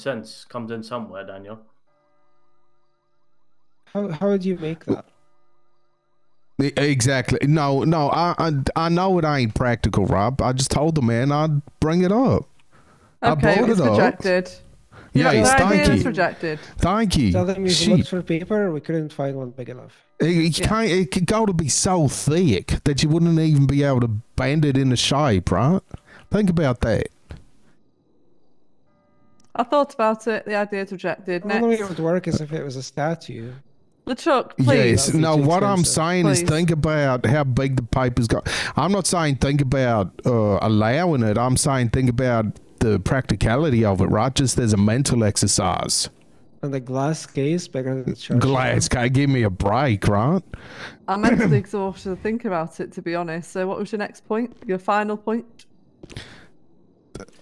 sense comes in somewhere, Daniel. How how would you make that? E, Exactly. No, no. I, I I know it ain't practical, Rob. I just told the man I'd bring it up. I Okay, bought it's it up. rejected. Yeah, the it's idea is thank you. rejected. Thank you. Tell them you looked Shit. for paper. We couldn't find one big enough. It, it Yeah. can't. It could go to be so thick that you wouldn't even be able to bend it into shape, right? Think about that. I thought about it. The idea is rejected. The only way it Next, would work is if it was a statue. LeChuck, please. Yes. That'd be No, too what I'm expensive. saying Please. is think about how big the paper's got. I'm not saying think about uh, allowing it. I'm saying think about the practicality of it, right? Just as a mental exercise. And the glass case bigger than the church. Glass, can give me a break, right? I'm mentally exhausted to think about it, to be honest. So, what was your next point? Your final point?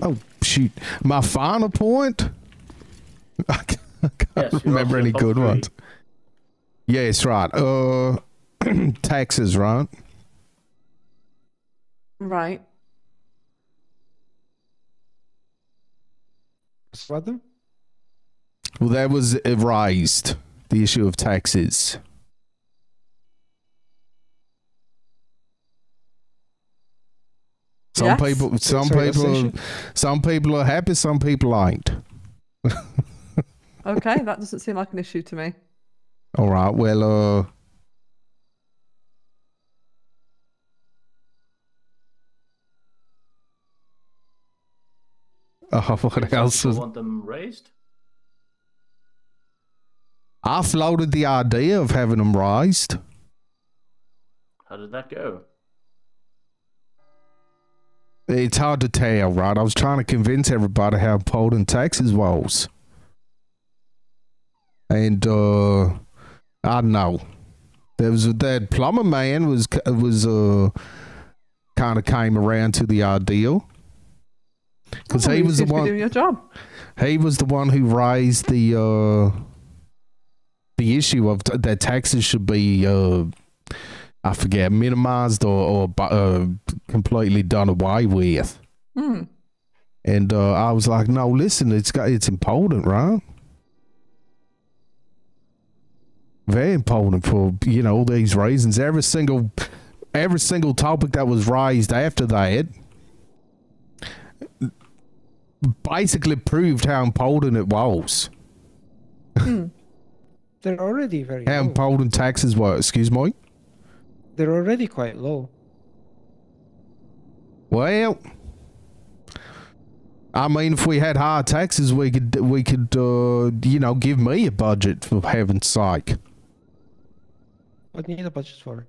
Oh shoot! My final point. I can't, I can't Yes, you're remember up to any the top good three. ones. Yes, right. Uh, taxes, right? Right. What them? Well, that was raised. The issue of taxes. Some Yes. people, some sorry, that's the people, issue? some people are happy. Some people ain't. Okay, that doesn't seem like an issue to me. All right. Well, uh, oh, what Some else? people Was, want them raised? I floated the idea of having them raised. How did that go? It's hard to tell, right? I was trying to convince everybody how important taxes was, and uh, I don't know there was that plumber man was was uh kind of came around to the ideal because Oh, he you was the seem to be one. doing your job. he was the one who raised the uh, the issue of t- that taxes should be uh, I forget minimized or, or bu- uh, completely done away with. Hmm. And uh, I was like, no, listen, it's got it's important, right? Very important for you know all these reasons. Every single every single topic that was raised after that basically proved how important it was. They're already very How low. important taxes were. Excuse me. They're already quite low. Well, I mean, if we had higher taxes, we could we could uh, you know give me a budget for heaven's sake. What do you need a budget for?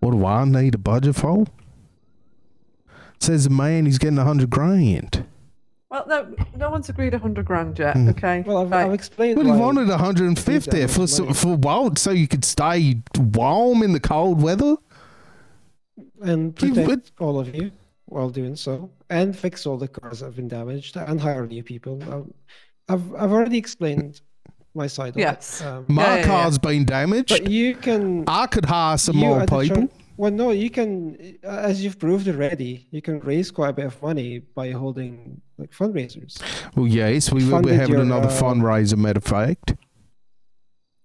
What do I need a budget for? Says the man he's getting a hundred grand. Well, no, no one's agreed a hundred grand yet. Hmm. Okay. Well, I've, right. I've explained. But he why. wanted a hundred and Need fifty that for much money. so, for what? So you could stay warm in the cold weather. and He protect would- all of you while doing so, and fix all the cars that have been damaged, and hire new people. Um, I've I've already explained my side of Yes. it. Um, My Yeah, yeah, yeah. car's been damaged. but you can I could hire some you more at the people. church- well, no, you can, uh, as you've proved already, you can raise quite a bit of money by holding like fundraisers. Well, yes, we will be Funded having your, another uh, fundraiser. Matter of fact,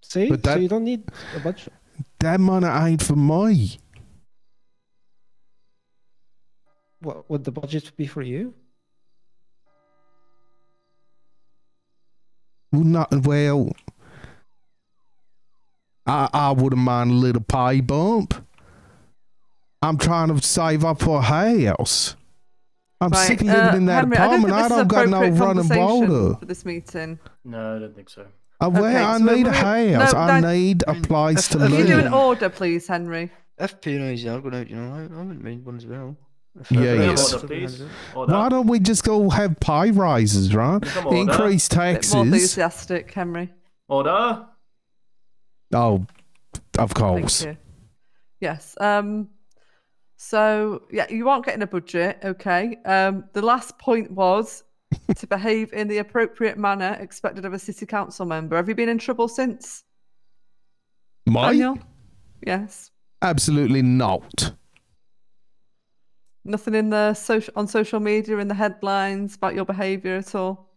See, But so that- you don't need a budget. that money ain't for me. What would the budget be for you? Well, not well. I I wouldn't mind a little pay bump. I'm trying to save up for a house. I'm Right, sick of living uh, in that Henry, apartment. I I don't don't, think got this is no appropriate running conversation water. for this meeting. No, I don't think so. Uh, well, Okay, I so need a we're- house. no, I Dan- need a place to Can you do an live. order, please, Henry? FP&A's yeah, I've got out, you know, I, I wouldn't mind one as well. If Yeah, everybody yeah. else Yes. Order, doesn't mind please. it. Order. Why don't we just go have pay rises, right? Come on, Increase Bit more taxes. enthusiastic, Henry. Order. Oh, of Thank course. you. Yes. Um. So yeah, you aren't getting a budget, okay? Um. The last point was to behave in the appropriate manner expected of a city council member. Have you been in trouble since, Mine? Daniel? Yes. Absolutely not. Nothing in the social on social media in the headlines about your behaviour at all.